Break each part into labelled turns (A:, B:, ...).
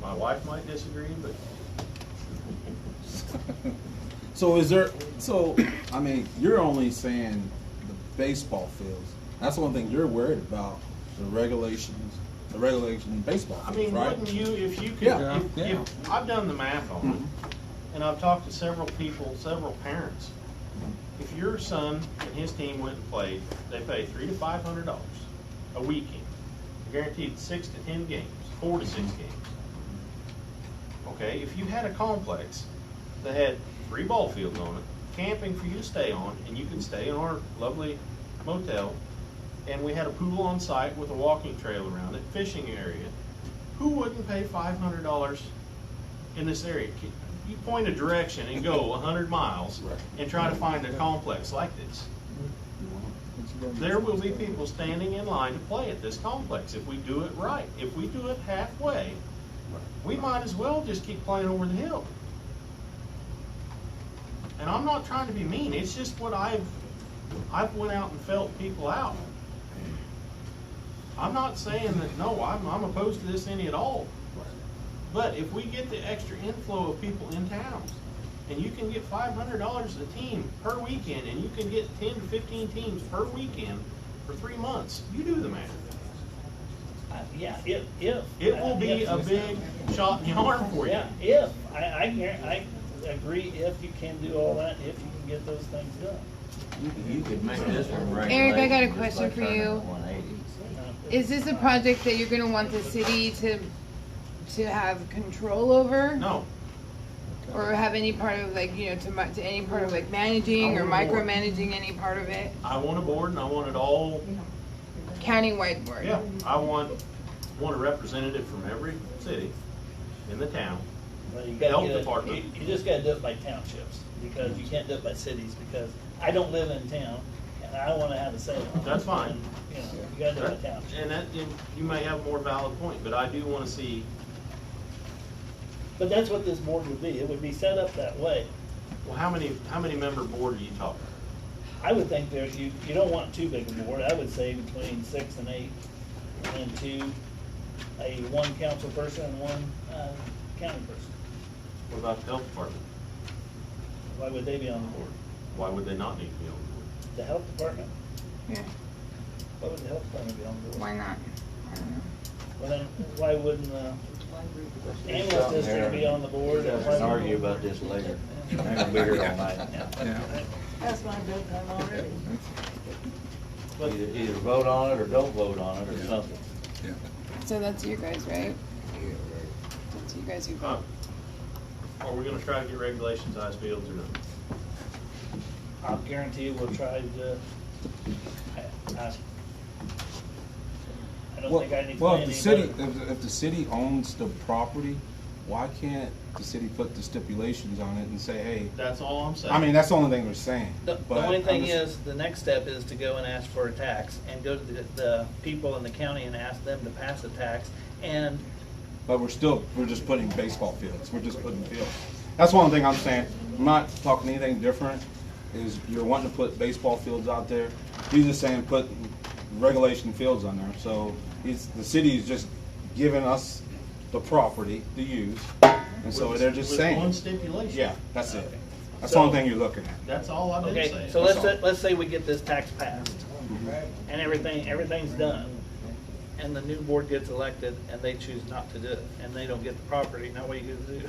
A: My wife might disagree, but
B: So is there? So I mean, you're only saying the baseball fields. That's the one thing you're worried about: the regulations, the regulation in baseball.
A: I
B: Fields,
A: mean,
B: right?
A: wouldn't you, if you could,
B: Yeah,
A: if,
B: yeah.
A: if, I've done the math on
B: Mhm.
A: it, and I've talked to several people, several parents. If your son and his team went and played, they pay three to five hundred dollars a weekend. They're guaranteed six to ten games, four to six games. Okay, if you had a complex that had three ball fields on it, camping for you to stay on, and you can stay in our lovely motel, and we had a pool on site with a walking trail around it, fishing area, who wouldn't pay five hundred dollars in this area? Can- You point a direction and go a hundred miles
B: Right.
A: and try to find a complex like this. There will be people standing in line to play at this complex if we do it right. If we do it halfway, we might as well just keep playing over the hill. And I'm not trying to be mean, it's just what I've, I've went out and felt people out. I'm not saying that, no, I'm, I'm opposed to this any at all. But if we get the extra inflow of people in towns, and you can get five hundred dollars a team per weekend, and you can get ten to fifteen teams per weekend for three months, you do the math.
C: Uh, Yeah, if, if.
A: It will be
C: uh,
A: a
C: if-
A: big shot in the arm for you.
C: Yeah, if, I, I, guar- I agree if you can do all that, if you can get those things done.
D: You could make this one right.
E: Eric, I got a
D: just
E: question
D: like
E: for
D: turning
E: you.
D: it 180.
E: Is this a project that you're gonna want the city to, to have control over?
A: No,
E: Or have any part of like, you know, to mu- to any part of like managing or micromanaging any part of it,
A: I want a board and I want it all,
E: countywide board?
A: yeah, I want, want a representative from every city in the town.
C: Well, you
A: The
C: gotta
A: health
C: get it-
A: department.
C: You you just gotta do it by townships, because you can't do it by cities, because I don't live in town, and I wanna have a say. on it.
A: That's fine.
C: And, You know, you gotta do it by township.
A: And that, and you may have a more valid point, but I do wanna see,
C: But that's what this board would be, it would be set up that way.
A: well, how many, how many member board are you talking?
C: I would think there, you, you don't want too big a board, I would say between six and eight, and two, a one council person and one, uh, county person.
A: What about the health department?
C: Why would they be on the board?
A: Why would they not need to be on the
C: The health department,
E: Yeah,
C: why would the health department be on the board?
E: why not? I don't know.
C: Well, then, why wouldn't, uh, ambulance district be on the board? and
D: Let's
C: why wouldn't-
D: argue about this later. I'm gonna be here all night.
F: That's my good time already.
C: But-
D: Either, either vote on it or don't vote on it or something.
E: So that's you guys, right? That's you guys who
A: board?
E: vote.
A: Huh? Are we gonna try to get regulations, ice fields or not?
C: I guarantee you we'll try to, I, I, I don't
B: Well,
C: think I need to.
B: well,
C: pay
B: if the
C: anybody.
B: city, if, if the city owns the property, why can't the city put the stipulations on it and say, hey?
A: That's all I'm saying.
B: I mean, that's the only thing we're saying.
G: The, the
B: but
G: only
B: I'm
G: thing
B: just-
G: is, the next step is to go and ask for a tax and go to the, the people in the county and ask them to pass a tax. And
B: But we're still, we're just putting baseball fields, we're just putting fields. That's one thing I'm saying, I'm not talking anything different, is you're wanting to put baseball fields out there. He's just saying put regulation fields on there, so he's, the city is just giving us the property to use, and so
A: With-
B: they're just
A: with one
B: saying.
A: stipulation.
B: Yeah, that's it. That's the only thing you're looking at.
A: That's all I did
G: okay,
A: say.
G: so let's say, let's say we get this tax passed,
B: Mm-hmm.
G: and everything everything's done, and the new board gets elected and they choose not to do it, and they don't get the property. Now what are you gonna do?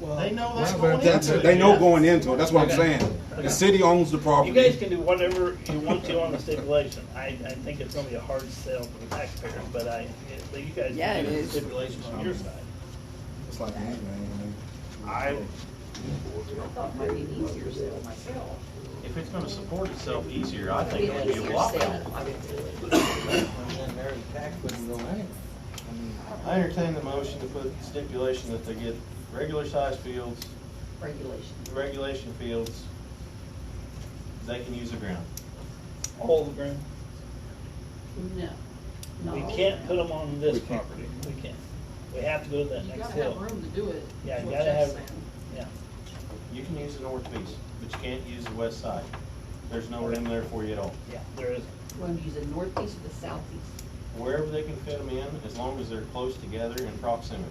A: They know that
B: Well,
A: going
B: that's-
A: into it.
B: They know
A: yeah.
B: going into it, that's what I'm
G: Okay.
B: saying. The city owns the property.
C: You guys can do whatever you want to on the stipulation. I, I think it's gonna be a hard sell for the taxpayers, but I, but you guys
E: Yeah,
C: can
E: it
C: do the
E: is.
C: stipulations on your side.
B: It's like anything, I mean.
A: I,
F: I thought it might be an easier sale myself.
A: if it's gonna support itself easier, I think it
F: It'd
A: would be a lot better.
F: sale. I didn't do it.
A: I entertain the motion to put stipulation that they get regular sized fields,
F: Regulation.
A: regulation fields, they can use the ground.
C: All the ground.
F: No. not
C: We
F: all
C: can't
F: around.
C: put them on this property. We can't. We have to go to that
F: You
C: next
F: gotta have
C: hill.
F: room to do it.
C: Yeah,
F: is
C: you
F: what
C: gotta
F: Jeff's
C: have,
F: saying.
C: yeah.
A: You can use the north piece, but you can't use the west side. There's no room there for you at all.
C: Yeah, there is.
F: Wanna use the northeast or the southeast?
A: Wherever they can fit them in, as long as they're close together in proximity.